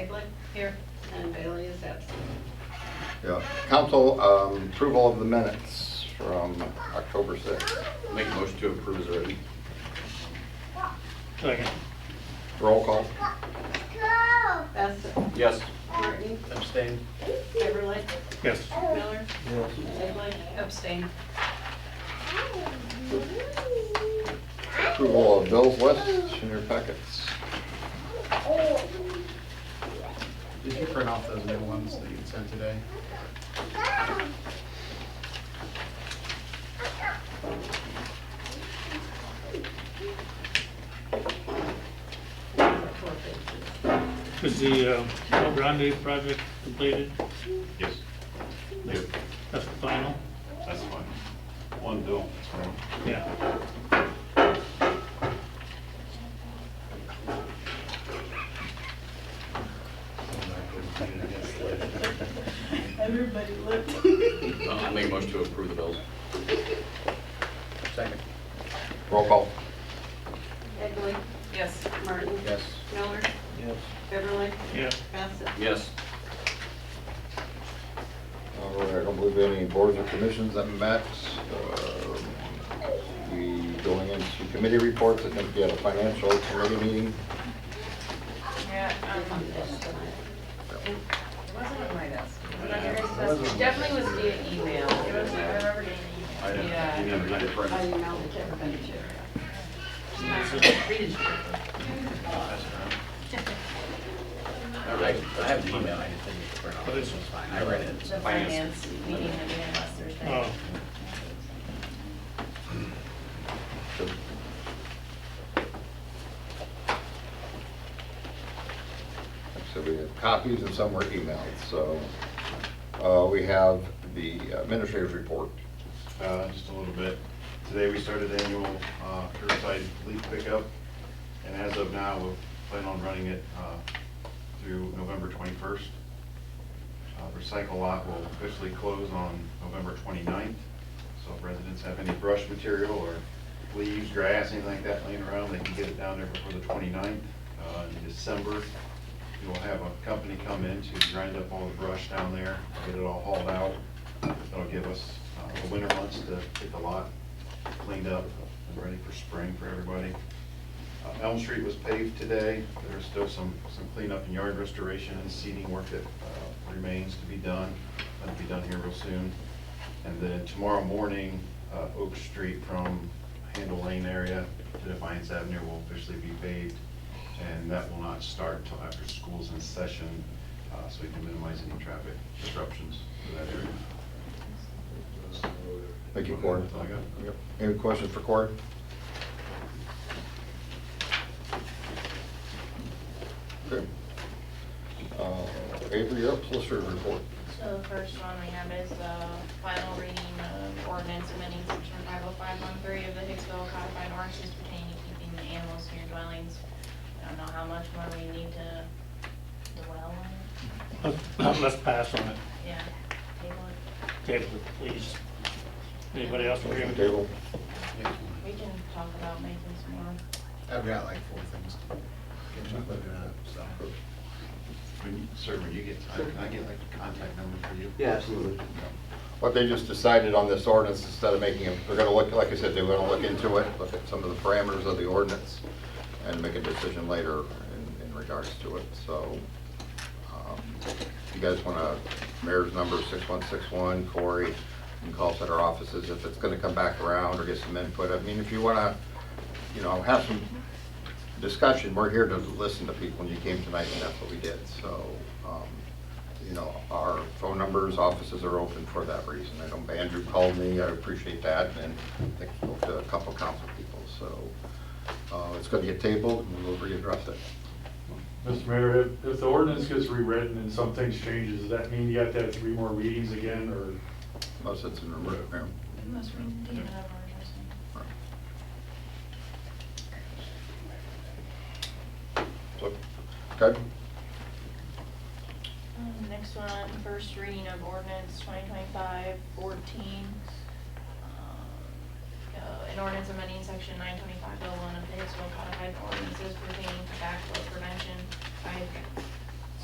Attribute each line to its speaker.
Speaker 1: Bigley here and Bailey is absent.
Speaker 2: Yeah, council um, approval of the minutes from October 6th.
Speaker 3: Make a motion to approve as written.
Speaker 4: Second.
Speaker 2: Roll call.
Speaker 1: Bassett,
Speaker 3: Yes.
Speaker 1: Martin,
Speaker 4: Abstain.
Speaker 1: Everly,
Speaker 4: Yes.
Speaker 1: Miller, Bigley, abstain.
Speaker 2: Approval of bills list in your packets.
Speaker 5: Did you print off those new ones that you sent today?
Speaker 1: Four pages.
Speaker 4: Was the uh, El Grande project completed?
Speaker 6: Yes, Yep.
Speaker 4: That's the final?
Speaker 6: that's fine. One bill, that's fine.
Speaker 4: Yeah.
Speaker 1: Everybody looked.
Speaker 3: I'll make a motion to approve the bills.
Speaker 5: Second.
Speaker 2: Roll call.
Speaker 1: Bigley, yes. Martin,
Speaker 5: Yes.
Speaker 1: Miller. Yes. Everly,
Speaker 4: Yeah.
Speaker 1: Bassett.
Speaker 3: Yes.
Speaker 2: All right, Uh, I don't believe any boards or commissions that met. Um, We going into committee reports, I think we had a financial committee meeting.
Speaker 7: Yeah, um, it wasn't on my desk. It was on your guys' desk. It Definitely was via email. It was, I remember getting
Speaker 3: I uh,
Speaker 7: an email.
Speaker 3: didn't,
Speaker 7: Yeah.
Speaker 3: I didn't get it
Speaker 1: I
Speaker 3: printed.
Speaker 1: emailed it to everybody too.
Speaker 3: All right.
Speaker 5: I have an email I just didn't get to print off.
Speaker 4: What is
Speaker 5: This
Speaker 4: it?
Speaker 5: one's fine, I read
Speaker 7: The
Speaker 5: it.
Speaker 7: finance meeting that we had last Thursday.
Speaker 4: Oh,
Speaker 2: So we have copies and some were emailed, so uh, we have the administrative report.
Speaker 6: Uh, just a little bit. Today, we started annual uh, curbside leaf pickup, and as of now, we plan on running it uh, through November 21st. Uh, Recycle lot will officially close on November 29th, so if residents have any brush material or leaves, grass, anything like that laying around, they can get it down there before the 29th. Uh, In December, we will have a company come in to grind up all the brush down there, get it all hauled out. That'll give us uh, the winter months to get the lot cleaned up and ready for spring for everybody. Uh, Elm Street was paved today. There's still some, some cleanup and yard restoration and seeding work that uh, remains to be done. That'll be done here real soon. And then tomorrow morning, uh, Oak Street from Handle Lane area to Defiance Avenue will officially be paved. And that will not start till after school's in session, uh, so we can minimize any traffic disruptions to that area.
Speaker 2: Thank you, Cory.
Speaker 6: That's all I got.
Speaker 2: Yep. Any questions for Cory? Okay. Uh, Avery, you're up, solicitor's report.
Speaker 7: So the first one we have is the final reading of ordinance amending section five oh five one three of the Hicksville codified ordinances pertaining to keeping the animals near dwellings. I don't know how much more we need to dwell on.
Speaker 4: let's let's pass on it.
Speaker 7: Yeah, table it.
Speaker 4: Table it, please. Anybody else agree
Speaker 2: Motion
Speaker 4: with
Speaker 2: Table.
Speaker 7: We can talk about making some more.
Speaker 5: I've got like four things. Get you looking up, so.
Speaker 6: When you- Sir, when you get time, can I get like a contact number for you?
Speaker 3: Yeah, absolutely.
Speaker 2: What they just decided on this ordinance, instead of making, a- they're gonna look, like I said, they're gonna look into it, look at some of the parameters of the ordinance, and make a decision later in, in regards to it, so. um, if You guys wanna, mayor's number six one six one, Cory, you can call us at our offices if it's gonna come back around or get some input. I mean, if you wanna, you know, have some discussion, we're here to listen to people, and you came tonight, and that's what we did, so, um, you know, our phone numbers, offices are open for that reason. I know Andrew called me, I appreciate that, and I think he spoke to a couple council people, so, uh, it's gonna get tabled, and we'll readdress it.
Speaker 8: Mr. Mayor, if, if the ordinance gets rewritten and some things changes, does that mean you have to have three more readings again, or?
Speaker 2: Most of it's in remote, Mayor.
Speaker 7: Most recent, do you have our address?
Speaker 2: So, Okay,
Speaker 7: Um, Next one, first reading of ordinance 2025-14. um, uh, An ordinance amending section 925.01 of the Hicksville Codified Ordinances pertaining to backflow prevention by